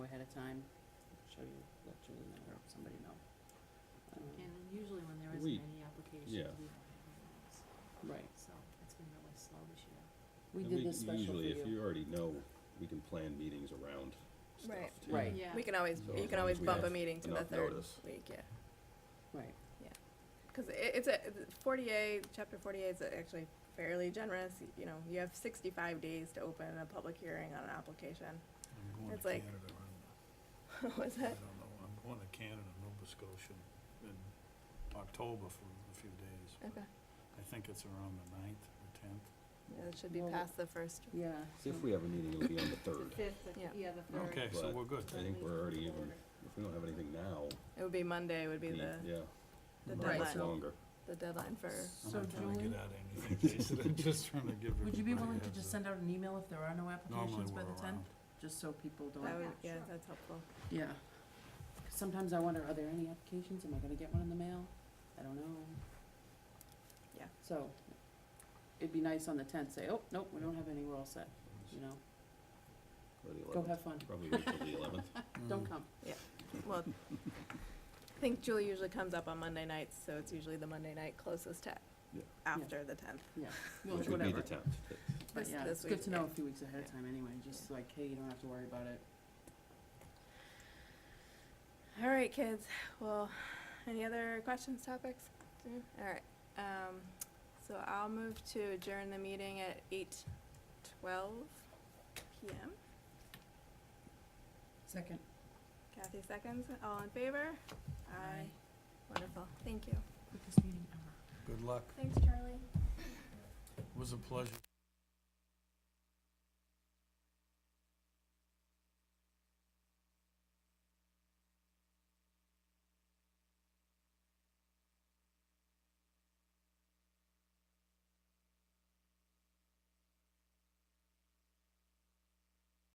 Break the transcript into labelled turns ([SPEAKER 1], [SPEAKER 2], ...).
[SPEAKER 1] time, show you, let Julie know, or somebody know. Um,
[SPEAKER 2] And usually when there
[SPEAKER 3] We-
[SPEAKER 2] isn't any applications, we
[SPEAKER 3] yeah.
[SPEAKER 2] don't have hearings,
[SPEAKER 1] Right,
[SPEAKER 2] so it's been really slow this year.
[SPEAKER 1] we
[SPEAKER 3] And
[SPEAKER 1] did this special for
[SPEAKER 3] Usually, if
[SPEAKER 1] you.
[SPEAKER 3] you already know, we can plan meetings around stuff
[SPEAKER 4] Right.
[SPEAKER 3] too.
[SPEAKER 1] Right.
[SPEAKER 2] Yeah.
[SPEAKER 4] We can always,
[SPEAKER 3] So as
[SPEAKER 4] you
[SPEAKER 3] long
[SPEAKER 4] can always
[SPEAKER 3] as we
[SPEAKER 4] bump a
[SPEAKER 3] have
[SPEAKER 4] meeting to the
[SPEAKER 3] enough
[SPEAKER 4] third
[SPEAKER 3] notice.
[SPEAKER 4] week, yeah.
[SPEAKER 1] Right,
[SPEAKER 4] Because it's a, forty-eight, chapter forty-eight is actually fairly generous, y- you know, you have sixty-five days to open a public hearing on an application.
[SPEAKER 5] I'm going
[SPEAKER 4] It's
[SPEAKER 5] to
[SPEAKER 4] like-
[SPEAKER 5] Canada.
[SPEAKER 4] Was
[SPEAKER 5] I'm, I
[SPEAKER 4] that?
[SPEAKER 5] don't know. I'm going to Canada, Nova Scotia, in October for a few days. but
[SPEAKER 4] Okay,
[SPEAKER 5] I think it's around the ninth or tenth.
[SPEAKER 4] Yeah, it should be
[SPEAKER 1] Well,
[SPEAKER 4] past the first,
[SPEAKER 1] yeah.
[SPEAKER 3] See
[SPEAKER 1] so-
[SPEAKER 3] If we have a meeting, it'll be on the third.
[SPEAKER 2] fifth,
[SPEAKER 4] Yeah.
[SPEAKER 2] yeah, the
[SPEAKER 5] Okay, so
[SPEAKER 3] But
[SPEAKER 5] we're good.
[SPEAKER 3] I think we're already even, if we don't have anything now,
[SPEAKER 4] it would be Monday would be
[SPEAKER 3] the-
[SPEAKER 4] the,
[SPEAKER 3] yeah,
[SPEAKER 4] the
[SPEAKER 1] Right,
[SPEAKER 3] much
[SPEAKER 1] so-
[SPEAKER 4] deadline,
[SPEAKER 3] longer.
[SPEAKER 4] the deadline for,
[SPEAKER 5] I'm
[SPEAKER 1] So
[SPEAKER 5] not trying to
[SPEAKER 1] Julie,
[SPEAKER 5] get out of anything, Jason, I'm just trying to give everybody a heads up.
[SPEAKER 1] would you be willing to just send out an email if there are no applications by the
[SPEAKER 5] Normally we're around.
[SPEAKER 1] tenth? Just so people don't,
[SPEAKER 4] that would,
[SPEAKER 2] yeah,
[SPEAKER 4] yeah,
[SPEAKER 2] sure.
[SPEAKER 4] that's helpful.
[SPEAKER 1] yeah. 'Cause Sometimes I wonder, are there any applications? Am I gonna get one in the mail? I don't know.
[SPEAKER 4] Yeah.
[SPEAKER 1] So, it'd be nice on the tenth, say, oh, nope, we don't have any, we're all set, you know,
[SPEAKER 3] Or the
[SPEAKER 1] go
[SPEAKER 3] 11th.
[SPEAKER 1] have fun,
[SPEAKER 3] Probably wait till the eleventh.
[SPEAKER 1] don't come.
[SPEAKER 4] Well, I think Julie usually comes up on Monday nights, so it's usually the Monday night closest to
[SPEAKER 3] Yeah.
[SPEAKER 4] after the tenth.
[SPEAKER 1] Well,
[SPEAKER 3] Which
[SPEAKER 1] it's
[SPEAKER 3] would be
[SPEAKER 1] whatever.
[SPEAKER 3] the tenth.
[SPEAKER 1] But
[SPEAKER 4] This-
[SPEAKER 1] yeah,
[SPEAKER 4] this
[SPEAKER 1] it's good
[SPEAKER 4] week,
[SPEAKER 1] to know a
[SPEAKER 4] yeah.
[SPEAKER 1] few weeks ahead of
[SPEAKER 4] Yeah.
[SPEAKER 1] time anyway, just like, hey, you don't have to worry about it.
[SPEAKER 4] All right, kids. Well, any other questions, topics? Mm, All right. Um, so I'll move to adjourn the meeting at eight twelve p.m.
[SPEAKER 5] Mm.
[SPEAKER 1] Second.
[SPEAKER 4] Kathy seconds. All in favor?
[SPEAKER 1] Aye.
[SPEAKER 4] Wonderful. Thank you.
[SPEAKER 1] Quickest meeting ever.
[SPEAKER 5] Good luck,
[SPEAKER 4] Thanks, Charlie.
[SPEAKER 5] it was a pleasure.